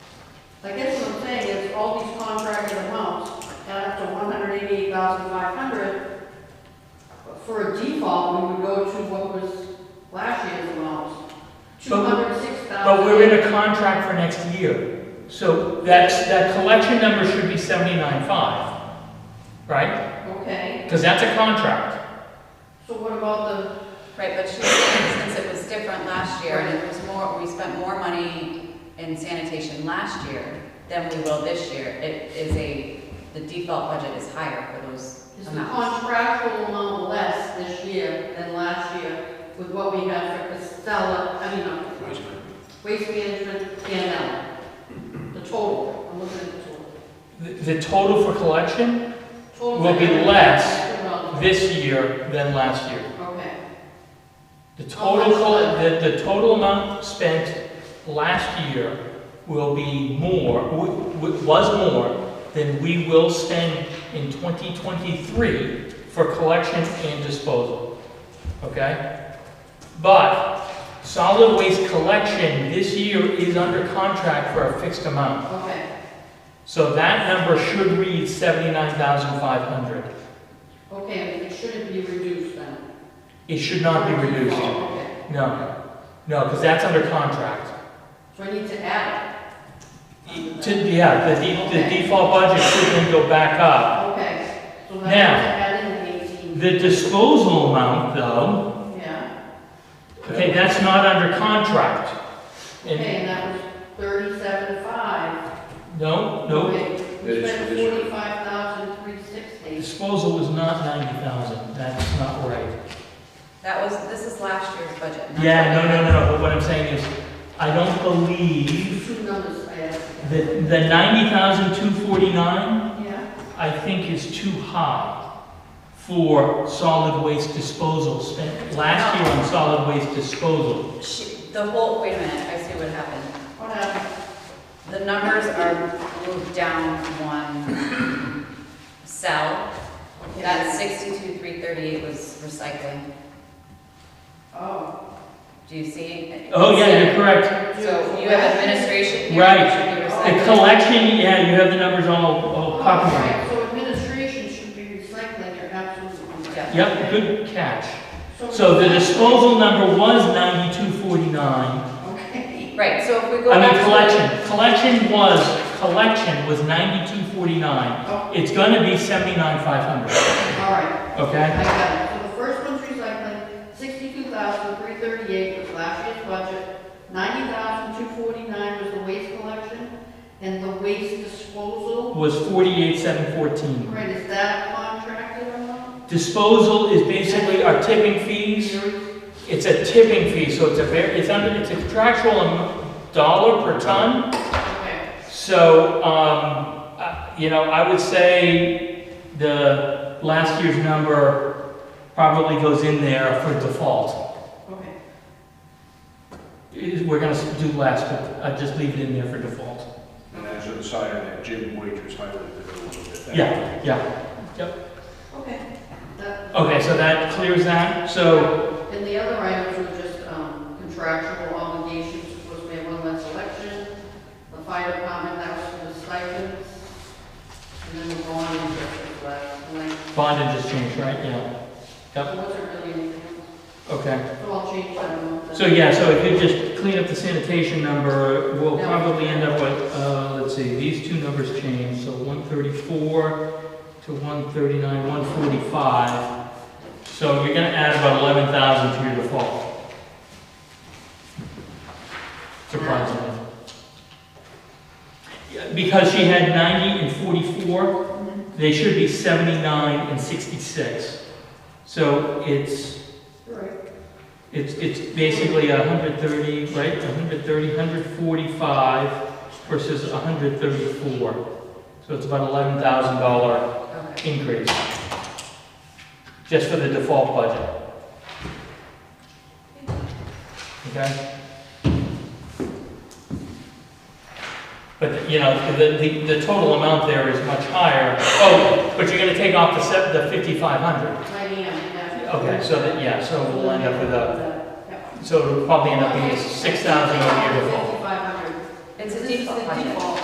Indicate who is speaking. Speaker 1: I guess what I'm saying is all these contracted amounts add up to one hundred eighty-eight thousand five hundred. For a default, we would go to what was last year's amounts, two
Speaker 2: But-
Speaker 1: hundred six thousand.
Speaker 2: But we're in a contract for next year, so that's, that collection number should be seventy-nine five, right?
Speaker 1: Okay,
Speaker 2: Because that's a contract.
Speaker 1: so what about
Speaker 3: Right, but she's saying since it was different last year and it was more, we spent more money in sanitation last year than we will this year, it is a, the default budget is higher for those
Speaker 1: the, is the
Speaker 3: amounts.
Speaker 1: contractual amount less this year than last year with what we had for Castella, I mean, uh, waste management and, uh, the total, I'm looking at the total.
Speaker 2: The, the total for collection
Speaker 1: Total
Speaker 2: Will be
Speaker 1: amount.
Speaker 2: less this year than last year.
Speaker 1: Okay.
Speaker 2: The total, col- the, the total amount spent last year will be more, w- w- was more than we will spend in 2023 for collection and disposal, okay? But solid waste collection this year is under contract for a fixed amount.
Speaker 1: Okay,
Speaker 2: So that number should read 79,500.
Speaker 1: okay, it shouldn't be reduced then?
Speaker 2: It should not be reduced.
Speaker 1: Oh, okay.
Speaker 2: No, no, because that's under contract.
Speaker 1: So I need to add it?
Speaker 2: E, To, yeah, the, de- the default budget should then go back up.
Speaker 1: Okay, so I need to
Speaker 2: Now.
Speaker 1: add in the eighteen,
Speaker 2: The disposal amount, though,
Speaker 1: yeah.
Speaker 2: okay, that's not under contract. And,
Speaker 1: Okay, and that was thirty-seven five.
Speaker 2: no, no,
Speaker 1: We
Speaker 4: It is
Speaker 1: spent
Speaker 4: reduced.
Speaker 1: forty-five thousand three sixty.
Speaker 2: disposal was not ninety thousand, that's not right.
Speaker 3: That was, this is last year's budget. not-
Speaker 2: Yeah, no, no, no, no, but what I'm saying is, I don't believe
Speaker 1: Two numbers I added.
Speaker 2: that the ninety thousand two forty-nine,
Speaker 1: Yeah,
Speaker 2: I think is too high for solid waste disposal spent last year on solid waste disposal.
Speaker 3: She, the whole, wait a minute, I see what happened.
Speaker 1: what happened?
Speaker 3: The numbers are moved down one cell. That sixty-two, three thirty-eight was recycling.
Speaker 1: Oh,
Speaker 3: Do you see? it?
Speaker 2: Oh, yeah, you're correct.
Speaker 3: So you have administration here.
Speaker 2: Right.
Speaker 3: which would be
Speaker 2: The
Speaker 3: recycling.
Speaker 2: collection, yeah, you have the numbers all, all copyrighted.
Speaker 1: Alright, So administration should be recycling, you're absolutely right.
Speaker 2: Yep, good catch. So the disposal number was ninety-two forty-nine.
Speaker 1: Okay,
Speaker 3: Right, so if we go
Speaker 2: I
Speaker 3: back to.
Speaker 2: mean, collection, collection was, collection was ninety-two forty-nine.
Speaker 1: oh,
Speaker 2: It's gonna be seventy-nine five hundred,
Speaker 1: alright.
Speaker 2: okay?
Speaker 1: I got it. So the first one's recycling, sixty-two thousand, three thirty-eight was last year's budget, ninety thousand, two forty-nine was the waste collection, and the waste disposal,
Speaker 2: Was forty-eight seven fourteen.
Speaker 1: right, is that contracted or not?
Speaker 2: Disposal is basically our tipping fees.
Speaker 1: You're-
Speaker 2: It's a tipping fee, so it's a very, it's under, it's a contractual am- dollar per ton.
Speaker 1: Okay,
Speaker 2: So, um, I- you know, I would say the last year's number probably goes in there for default.
Speaker 1: okay,
Speaker 2: Is- We're gonna do last, but I just leave it in there for default.
Speaker 4: And as an aside, that Jim Waiters highlighted it a little bit. there.
Speaker 2: Yeah, yeah.
Speaker 1: okay. That-
Speaker 2: Okay, so that clears that. So,
Speaker 1: And the other items were just um, contractual obligations, of course, we have one less election, the fire department, that was for the stipends, and then the bond interest was last, like,
Speaker 2: bond had just changed, right? Yeah.
Speaker 1: It wasn't really anything
Speaker 2: Okay.
Speaker 1: else. So I'll change that one.
Speaker 2: So, yeah, so if you just clean up the sanitation number, we'll
Speaker 1: Yeah.
Speaker 2: probably end up with, uh, let's see, these two numbers change, so one thirty-four to one thirty-nine, one forty-five. So you're gonna add about eleven thousand to your default. Surprisingly. Yeah, Because she had ninety and forty-four, they should be seventy-nine and sixty-six. So it's
Speaker 1: Right.
Speaker 2: it's, it's basically a hundred thirty, right, a hundred thirty, hundred forty-five versus a hundred thirty-four. So it's about eleven thousand dollar
Speaker 3: Okay.
Speaker 2: increase, just for the default budget. Okay? But, you know, the, the, the total amount there is much higher. Oh, but you're gonna take off the se the fifty-five hundred.
Speaker 1: I am, yeah.
Speaker 2: Okay, so that, yeah, so we'll end up with a
Speaker 1: Yeah.
Speaker 2: so it'll probably end up being six thousand over here before.